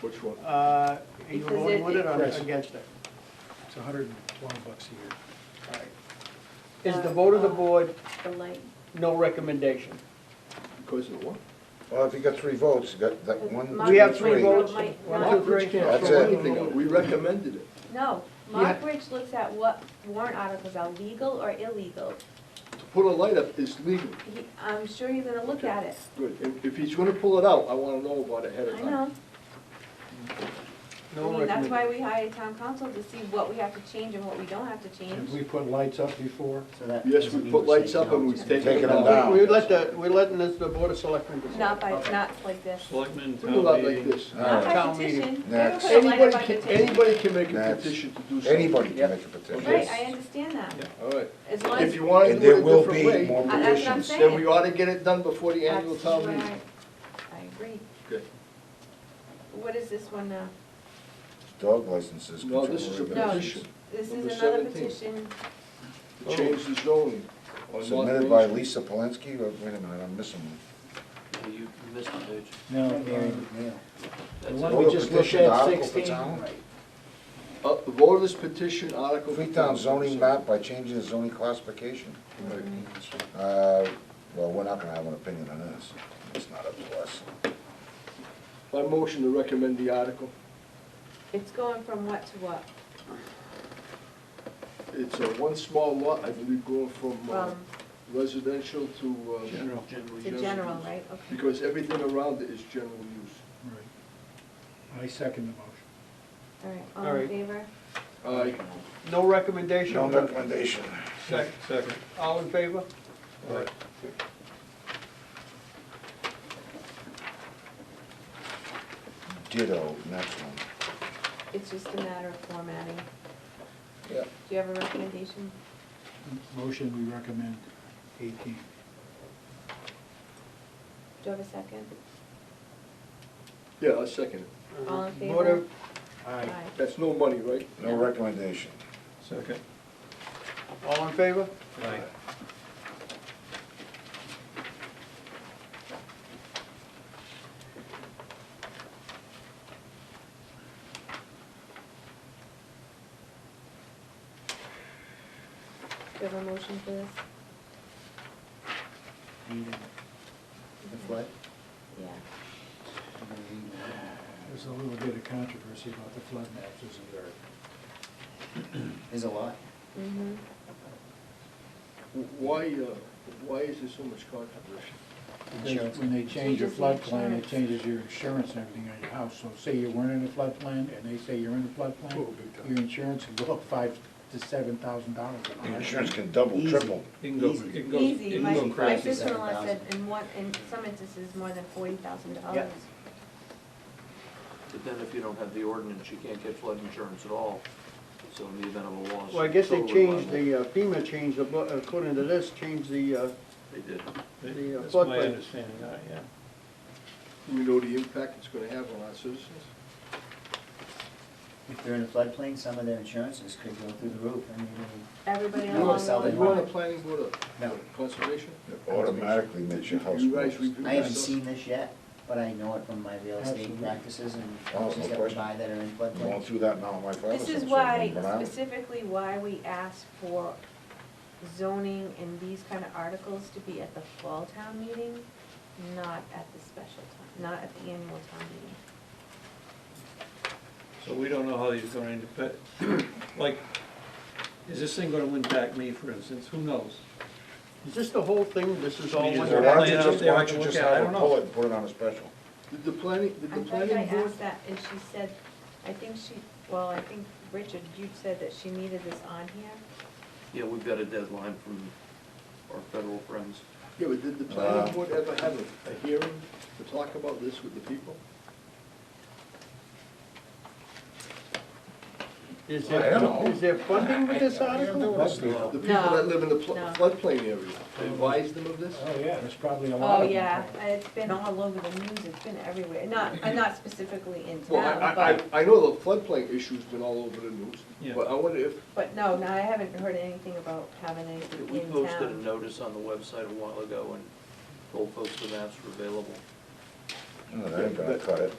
Which one? Uh, Are you Because voting it- with it or Yes. against it? It's hundred and twelve bucks a year. All right. Is the vote of the board the light. no recommendation? Because of what? Well, if you got three votes, you got that one. Mark We have Ridge three Road votes. might One, not- two, three. Rich can't That's throw it. anything out. We recommended it. No, Mark Ridge looks at what warrant articles are legal or illegal. To put a light up is legal. He, I'm sure you're gonna look at it. Good. If, if he's gonna pull it out, I wanna know about it ahead of I time. know. I No mean, that's why recommendation. we hired town council to see what we have to change and what we don't have to change. Have we put lights up before? So that Yes, doesn't we mean put we're lights saying up no to and we've it. taken Taking them them down. down. We let the, we letting this, the board of selectmen decide. Not by, not like this. Selectmen, We do town not like meeting. this. All Not right. by Town meeting. petition. They don't Next. put a light up Anybody by can, petition. anybody can make a That's- petition to do something. Anybody can Yep. make a petition. Right, I understand that. All right. As long as. If you wanna And do it there a will different be way, more I- that's what I'm petitions. saying. then we ought to get it done before the annual That's town right. meeting. I agree. What is this one now? Dog licenses. No, control this is a No. regulations. petition This is Number another 17. petition. to change the zoning. on North Submitted Main by Street. Lisa Polinsky, or wait a minute, I'm missing one. You you missed one, page. No. um, The That's one it. we Vote just looked petition at, article for sixteen. town. Uh, vote this petition article. Freetown zoning map by changing the zoning classification. Uh, well, we're not gonna have an opinion on this. It's not up to us. My motion to recommend the article. It's going from what to what? It's a one small lot, I believe, going from uh, From residential to. uh, General. Generally, to Yes. general, right? Okay. Because everything around it is general use. Right. I second the motion. All right, All all right. in favor? Aye. No recommendation. No recommendation. Sec- Second. All in favor? Ditto, next one. It's just a matter of formatting. Yeah. Do you have a recommendation? Motion, we recommend eighteen. Do you have a second? Yeah, I second it. All in favor? Vote of- Aye. That's no money, right? No recommendation. Second. All in favor? Aye. Do you have a motion for this? If what? Yeah. There's a little bit of controversy about the flood maps, isn't there? There's a lot. Mm-hmm. W- Why, uh, why is there so much controversy? Because When they change your Changes the flood plan, it insurance. changes your insurance and everything on your house. So say you weren't in a flood plan, and they say you're in a flood plan, Oh, big time. your insurance would go up five to seven thousand dollars. The Insurance can double, triple. It can go, Easy. it can go, it Easy, can my, go my crazy. sister-in-law said $7,000. in one, in some instances, more than forty thousand dollars. But then if you don't have the ordinance, you can't get flood insurance at all, so in the event of a loss. Well, I guess they totally changed liable. the, uh, FEMA changed the, bu- according to this, changed the, uh, They did. the uh, That's my floodplain. understanding, uh, yeah. Do we know the impact it's gonna have on our citizens? If they're in a floodplain, some of their insurances could go through the roof. I mean, Everybody You along are the Are selling line. you on the planning board or No. conservation? It automatically makes your house You guys worse. review I haven't this? seen this yet, but I know it from my real estate Absolutely. practices and Oh, no houses that we question. buy that are in I'm Going floodplains. through that now, my father's. This is why, specifically why we asked for zoning and these kind of articles to be at the fall town meeting, not at the special town, not at the annual town meeting. So we don't know how these are going to, but, like, is this thing gonna impact me, for instance, who knows? Is this the whole thing? This is all You one? just Why don't you Plan out just, there, why I don't can you look just at it, I have don't a know. pull it and put it on a special? Oh, Did the planning, did I thought the I planning board? asked that, and she said, I think she, well, I think, Richard, you said that she needed this on here. Yeah, we've got a deadline from our federal friends. Yeah, but did the Uh, planning board ever have a, a hearing to talk about this with the people? Is I there, don't know. is there funding with this article? Must be. The people that live in the pl- No. floodplain area, advise them of this? Oh, yeah, there's probably a lot Oh, of them. yeah, it's been all over the news, it's been everywhere, not, uh, not specifically in Well, I- town, I, but, I, I know the floodplain issue's been all over the Yeah. news, but I wonder if, but no, no, I haven't heard anything about having We anything in posted a town. notice on the website a while ago and told folks the maps were available. No, that ain't gonna cut it.